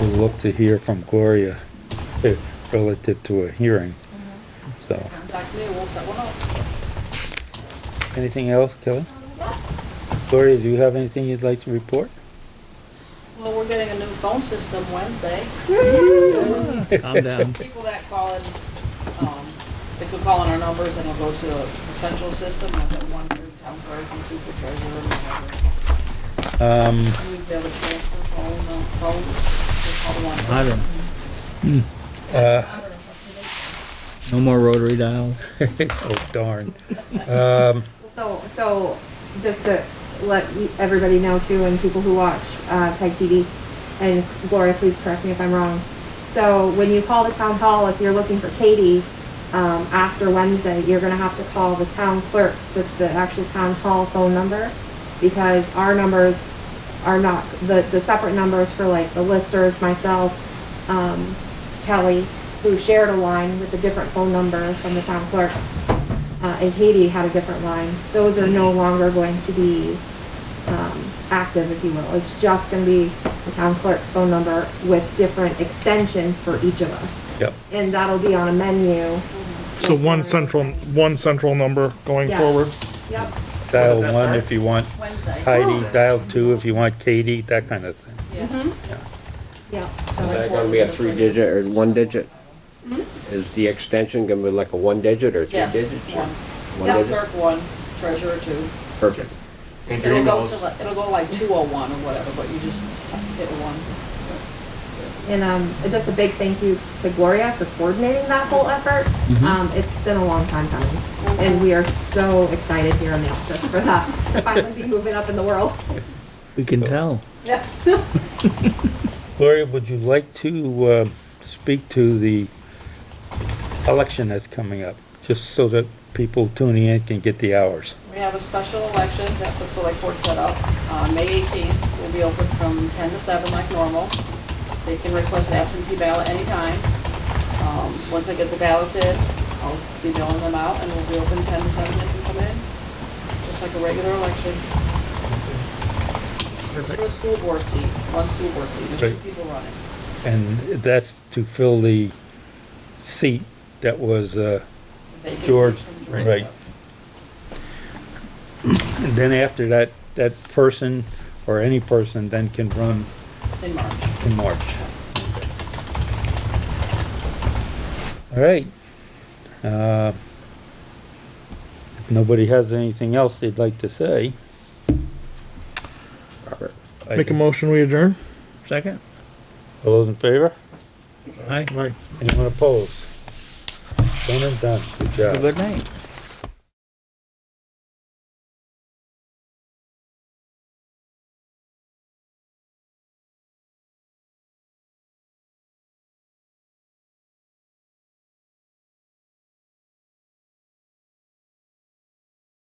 we'll look to hear from Gloria eh, relative to a hearing, so. Contactez, we'll set one up. Anything else, Kelly? Gloria, do you have anything you'd like to report? Well, we're getting a new phone system Wednesday. I'm down. People that call in, um, they could call in our numbers and it'll go to the central system, that's at one for town clerk and two for treasurer and whatever. Um, And we'd be able to transfer phone, uh, phones, just call the one. I don't, uh, no more rotary dial. oh darn. Um, So, so just to let you- everybody know too, and people who watch uh, PEG TV, and Gloria, please correct me if I'm wrong. So when you call the town hall, if you're looking for Katie, um, after Wednesday, you're gonna have to call the town clerks, the, the actual town hall phone number, because our numbers are not, the, the separate numbers for like the listers, myself, um, Kelly, who shared a line with a different phone number from the town clerk uh, and Haiti had a different line. Those are no longer going to be um, active, if you will. It's just going to be the town clerk's phone number with different extensions for each of us. yep, And that'll be on a menu. Uh, So one central, one central number going Yeah. forward. Yep. dial one if you want Wednesday. Heidi, dial two if you want Katie, that kind of thing. Yeah. Mm-hmm. Yep. So like Is that four gonna be a digits, three like digit this. or one digit? Is the extension gonna be like a one digit or three Yes, digits? or- one. One Town digit, clerk one, treasurer two. perfect. And your It'll go emails, to, like- it'll go like two oh one or whatever, but you just hit one. And um, just a big thank you to Gloria for coordinating that whole effort. Um, it's been a long time coming, and we are so excited here in the office for that. to Finally be moving up in the world. We can tell. Yeah. Gloria, would you like to, uh, speak to the election that's coming up? Just so that people tuning in can get the hours. We have a special election that the select board set up, uh, May 18th, will be open from 10 to 7 like normal. They can request an absentee ballot anytime. Um, once I get the ballots in, I'll be mailing them out, and we'll be open 10 to 7, they can come in, just like a regular election. It's for a school board seat, one school board seat, there's Right. two people running. And that's to fill the seat that was, uh, Vacancy George, from George. right. And then after that, that person or any person then can run In March. in March. All right. Uh, If nobody has anything else they'd like to say. Robert. I- Make a motion, we adjourn. Second? All those in favor? Aye. Anyone opposed? Done and done. Good job. Good night.